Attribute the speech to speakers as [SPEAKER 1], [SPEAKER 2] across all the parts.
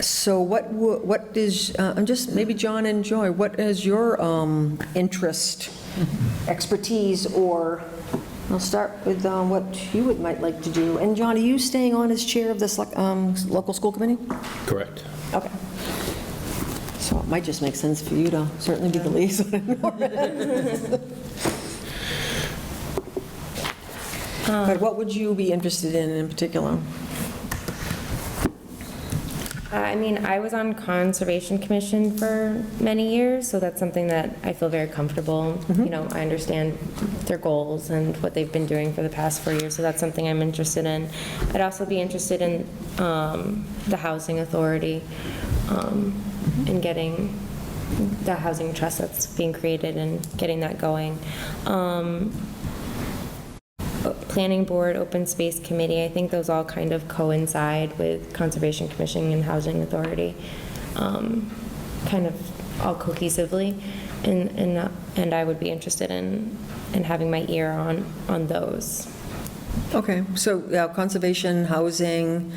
[SPEAKER 1] So what, wo- what is, uh, I'm just, maybe John and Joy, what is your um, interest, expertise, or, I'll start with uh, what you would, might like to do. And John, are you staying on as chair of this like, um, local school committee?
[SPEAKER 2] Correct.
[SPEAKER 1] Okay. So it might just make sense for you to certainly be the liaison. But what would you be interested in in particular?
[SPEAKER 3] Uh, I mean, I was on Conservation Commission for many years, so that's something that I feel very comfortable. You know, I understand their goals and what they've been doing for the past four years, so that's something I'm interested in. I'd also be interested in um, the Housing Authority um, and getting the housing trust that's being created and getting that going. Um, Planning Board, Open Space Committee, I think those all kind of coincide with Conservation Commission and Housing Authority, um, kind of all cohesively, and, and, uh, and I would be interested in, in having my ear on, on those.
[SPEAKER 1] Okay, so yeah, conservation, housing,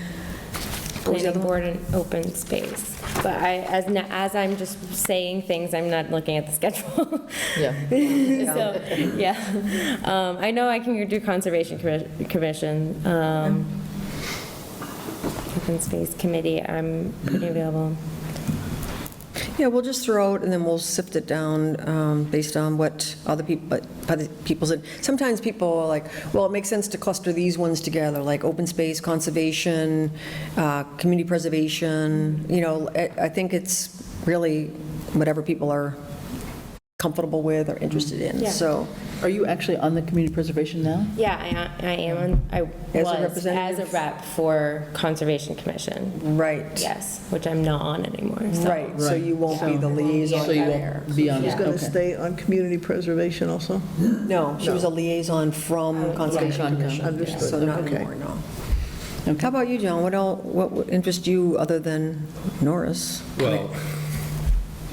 [SPEAKER 1] what was the other
[SPEAKER 3] Planning Board and Open Space. But I, as, na- as I'm just saying things, I'm not looking at the schedule.
[SPEAKER 4] Yeah.
[SPEAKER 3] So, yeah, Um, I know I can do Conservation Commi- Commission, um, Open Space Committee, I'm pretty available.
[SPEAKER 1] Yeah, we'll just throw out, and then we'll sift it down um, based on what other people, but other people's, sometimes people are like, well, it makes sense to cluster these ones together, like open space, conservation, uh, community preservation, you know, I I think it's really whatever people are comfortable with or interested in,
[SPEAKER 3] Yeah.
[SPEAKER 1] so.
[SPEAKER 4] Are you actually on the community preservation now?
[SPEAKER 3] Yeah, I, I am, on- I
[SPEAKER 1] As a
[SPEAKER 3] was as a
[SPEAKER 1] representative?
[SPEAKER 3] rep for Conservation Commission,
[SPEAKER 1] Right,
[SPEAKER 3] yes, which I'm not on anymore, so.
[SPEAKER 1] right, so you won't be the liaison
[SPEAKER 4] So you
[SPEAKER 1] there.
[SPEAKER 4] won't be on
[SPEAKER 5] She's
[SPEAKER 4] it,
[SPEAKER 5] going to
[SPEAKER 4] okay.
[SPEAKER 5] stay on community preservation also?
[SPEAKER 1] No, she was a liaison from Conservation Commission,
[SPEAKER 5] Understood,
[SPEAKER 1] so not
[SPEAKER 5] okay.
[SPEAKER 1] anymore, no. How about you, John? What else, what would interest you other than Norris?
[SPEAKER 2] Well,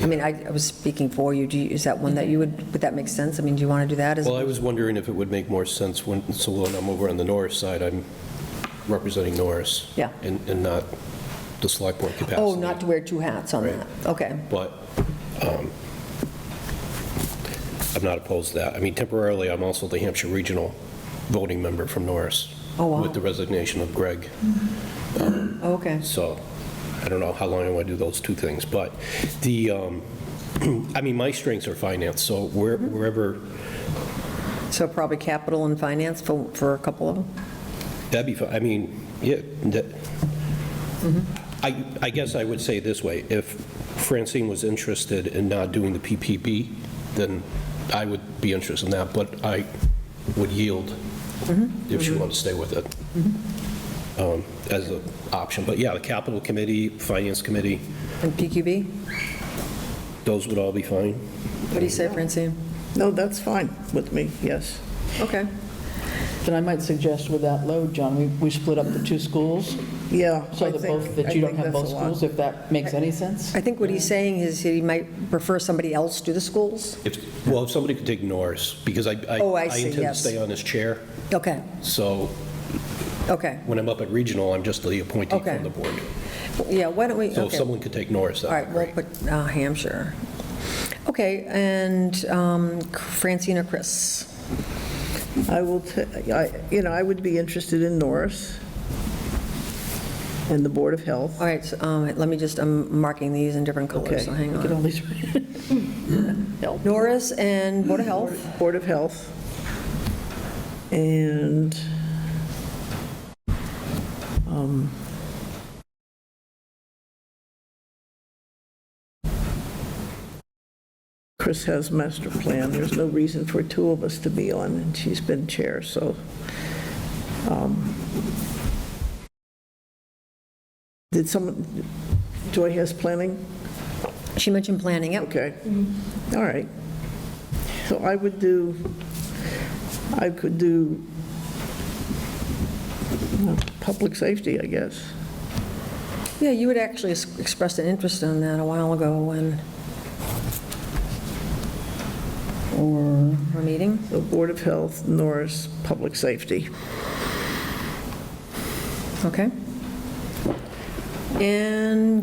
[SPEAKER 1] I mean, I I was speaking for you. Do you, is that one that you would, would that make sense? I mean, do you want to do that? as- Oh,
[SPEAKER 2] well, I was wondering if it would make more sense when, so when I'm over on the Norris side, I'm representing Norris.
[SPEAKER 1] Yeah.
[SPEAKER 2] And, and not the select board capacity.
[SPEAKER 1] Oh, not to wear two hats on that? Okay.
[SPEAKER 2] But um, I'm not opposed to that. I mean, temporarily, I'm also the Hampshire Regional voting member from Norris.
[SPEAKER 1] Oh, wow.
[SPEAKER 2] With the resignation of Greg.
[SPEAKER 1] Okay.
[SPEAKER 2] So I don't know how long I want to do those two things, but the, um, I mean, my strengths are finance, so where- wherever,
[SPEAKER 1] So probably capital and finance for, for a couple of them?
[SPEAKER 2] that'd be, fi- I mean, yeah, that,
[SPEAKER 1] Mm-hmm.
[SPEAKER 2] I, I guess I would say it this way, if Francine was interested in not doing the PPP, then I would be interested in that, but I would yield
[SPEAKER 1] Mm-hmm.
[SPEAKER 2] if she wanted to stay with it um, as an option. But yeah, the capital committee, finance committee,
[SPEAKER 1] And PQB?
[SPEAKER 2] those would all be fine.
[SPEAKER 1] What do you say, Francine?
[SPEAKER 5] No, that's fine with me, yes.
[SPEAKER 1] Okay.
[SPEAKER 4] Then I might suggest with that load, John, we, we split up the two schools
[SPEAKER 5] Yeah. I
[SPEAKER 4] so that
[SPEAKER 5] think-
[SPEAKER 4] both,
[SPEAKER 5] I
[SPEAKER 4] that you don't
[SPEAKER 5] think
[SPEAKER 4] have
[SPEAKER 5] that's
[SPEAKER 4] both
[SPEAKER 5] a lot.
[SPEAKER 4] schools, if that makes any sense.
[SPEAKER 1] I think what he's saying is he might prefer somebody else do the schools?
[SPEAKER 2] If, well, if somebody could take Norris, because I, I
[SPEAKER 1] Oh, I
[SPEAKER 2] I
[SPEAKER 1] see,
[SPEAKER 2] intend to
[SPEAKER 1] yes.
[SPEAKER 2] stay on this chair,
[SPEAKER 1] Okay,
[SPEAKER 2] so
[SPEAKER 1] okay.
[SPEAKER 2] when I'm up at regional, I'm just the appointee
[SPEAKER 1] Okay.
[SPEAKER 2] from the board.
[SPEAKER 1] Yeah, why don't we, okay.
[SPEAKER 2] So if someone could take Norris,
[SPEAKER 1] All right,
[SPEAKER 2] that'd be
[SPEAKER 1] we'll
[SPEAKER 2] great.
[SPEAKER 1] put uh, Hampshire. Okay, and um, Francine or Chris?
[SPEAKER 5] I will, ta- I- you know, I would be interested in Norris and the Board of Health.
[SPEAKER 1] All right, so, um, let me just, I'm marking these in different
[SPEAKER 4] Oh,
[SPEAKER 1] colors,
[SPEAKER 5] Okay.
[SPEAKER 1] so hang
[SPEAKER 4] You can
[SPEAKER 1] on.
[SPEAKER 4] only-
[SPEAKER 1] Norris and Board of Health,
[SPEAKER 5] Board of Health. And um, Chris has master plan. There's no reason for two of us to be on, and she's been chair, so. um, Did someone, Joy has planning?
[SPEAKER 1] she mentioned planning, yep.
[SPEAKER 5] Okay, all right. So I would do, I could do uh, public safety, I guess.
[SPEAKER 1] Yeah, you had actually s- expressed an interest in that a while ago when,
[SPEAKER 4] Or,
[SPEAKER 1] our meeting.
[SPEAKER 5] So Board of Health, Norris, public safety.
[SPEAKER 1] Okay. And